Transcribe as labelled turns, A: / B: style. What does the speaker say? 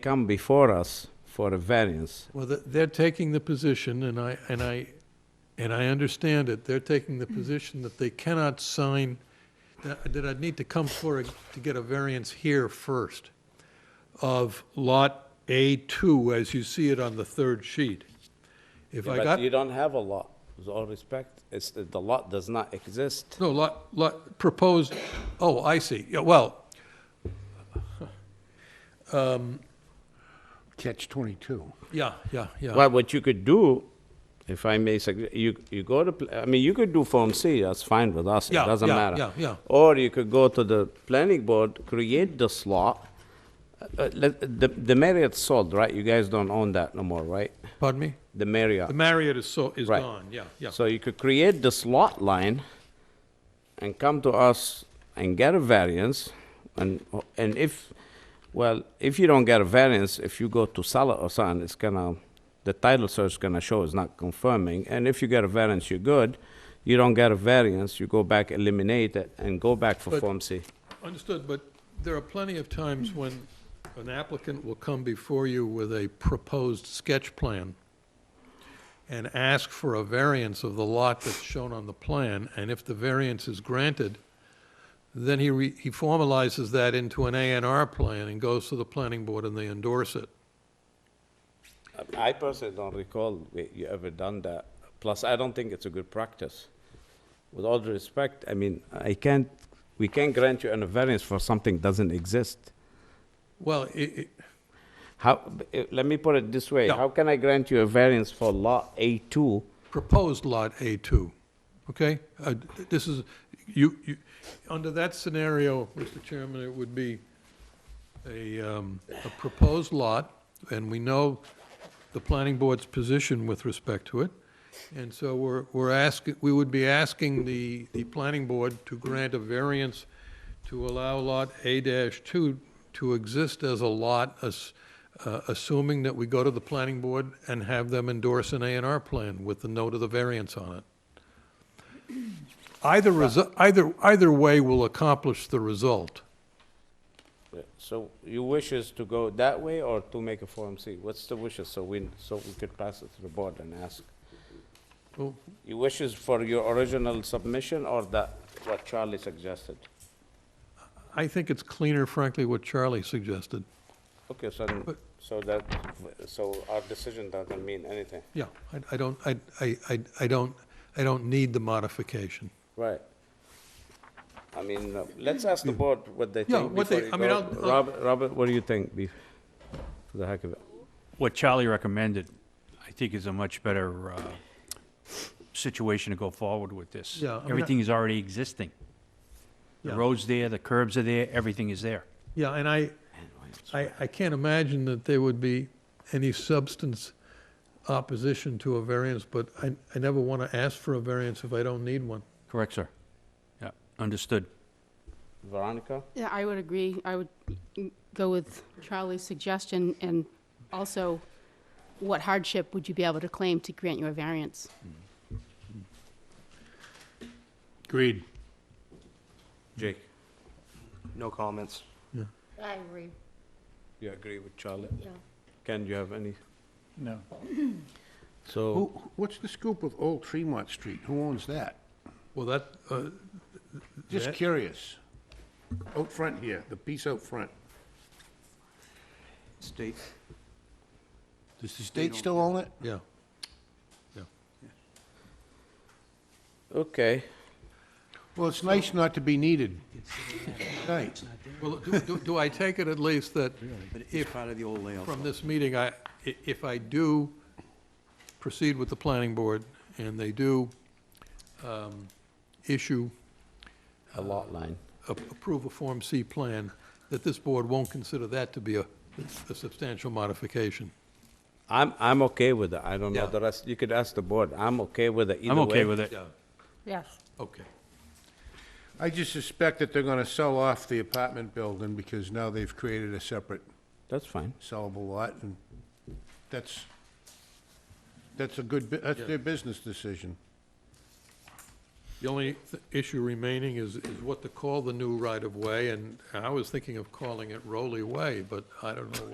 A: come before us for a variance.
B: Well, th- they're taking the position, and I, and I, and I understand it, they're taking the position that they cannot sign, that that I'd need to come forward to get a variance here first of Lot A2, as you see it on the third sheet. If I got,
A: But you don't have a lot, with all respect, it's, the lot does not exist.
B: no, lot, lot, proposed, oh, I see, yeah, well,
C: Catch 22.
B: yeah, yeah, yeah.
A: Well, what you could do, if I may, sug- you, you go to, pl- I mean, you could do Form C, that's fine with us, it
B: Yeah,
A: doesn't
B: yeah,
A: matter.
B: yeah, yeah.
A: Or you could go to the planning board, create the slot. Uh, let- The, the Marriott's sold, right? You guys don't own that no more, right?
B: Pardon me?
A: The Marriott.
B: The Marriott is so, is
A: Right.
B: gone, yeah, yeah.
A: So you could create this lot line and come to us and get a variance, and, and if, well, if you don't get a variance, if you go to sell it or something, it's gonna, the title search gonna show it's not confirming, and if you get a variance, you're good. You don't get a variance, you go back, eliminate it, and go back for
B: But-
A: Form C.
B: Understood, but there are plenty of times when an applicant will come before you with a proposed sketch plan and ask for a variance of the lot that's shown on the plan, and if the variance is granted, then he, re- he formalizes that into an A and R plan and goes to the planning board and they endorse it.
A: I personally don't recall we- you ever done that. Plus, I don't think it's a good practice. With all due respect, I mean, I can't, we can't grant you an variance for something doesn't exist.
B: Well, it, it,
A: How, b- eh, let me put it this way,
B: Yeah.
A: how can I grant you a variance for lot A2?
B: proposed Lot A2, okay? Uh, This is, you, you, under that scenario, Mr. Chairman, it would be a, um, a proposed lot, and we know the planning board's position with respect to it, and so we're, we're asking, we would be asking the, the planning board to grant a variance to allow Lot A-2 to exist as a lot, as- uh, assuming that we go to the planning board and have them endorse an A and R plan with the note of the variance on it. Either, resu- either, either way will accomplish the result.
A: Yeah, So your wish is to go that way or to make a Form C? What's the wishes, so we, so we could pass it to the board and ask?
B: Well,
A: Your wishes for your original submission or that, what Charlie suggested?
B: I think it's cleaner, frankly, what Charlie suggested.
A: Okay, so, then-
B: But-
A: so that, so our decision doesn't mean anything.
B: Yeah, I, I don't, I, I, I- I don't, I don't need the modification.
A: Right. I mean, uh, let's ask the board what they
B: Yeah,
A: think
B: what
A: before
B: they-
A: you
B: I mean,
A: go.
B: I'll- I'll-
A: Robert, Robert, what do you think, be- for the heck of it?
D: what Charlie recommended, I think is a much better uh, situation to go forward with this.
B: Yeah, I mean, I-
D: Everything is already existing. The
B: Yeah.
D: road's there, the curbs are there, everything is there.
B: Yeah, and I, I, I can't imagine that there would be any substance opposition to a variance, but I, I never want to ask for a variance if I don't need one.
D: Correct, sir. Yeah, understood.
A: Veronica?
E: Yeah, I would agree. I would go with Charlie's suggestion, and also, what hardship would you be able to claim to grant you a variance?
D: Agreed.
A: Jake?
F: No comments.
G: I agree,
A: You agree with Charlie?
G: yeah.
A: Ken, you have any?
D: No.
A: So,
C: Who, what's the scoop with Old Tremont Street? Who owns that?
B: Well, that, uh,
C: Just
B: That-
C: curious. Out front here, the piece out front.
F: State,
C: Does the state still own it?
B: yeah.
A: okay,
C: Well, it's nice not to be needed. Right.
B: Well, do- do, do I take it at least that
F: but it's
B: if,
F: part of the old layout.
B: from this meeting, I, i- if I do proceed with the planning board, and they do um, issue,
A: a lot line.
B: a- approve a Form C plan, that this board won't consider that to be a a substantial modification?
A: I'm, I'm okay with it, I don't know
B: Yeah.
A: the rest, you could ask the board, I'm okay with it either
D: I'm
A: way.
D: okay with it.
B: Yeah,
G: Yes.
B: okay.
C: I just suspect that they're gonna sell off the apartment building because now they've created a separate
A: That's fine.
C: sellable lot, and that's, that's a good, bu- that's their business decision.
B: The only th- issue remaining is, is what to call the new right-of-way, and I was thinking of calling it Rowley Way, but I don't know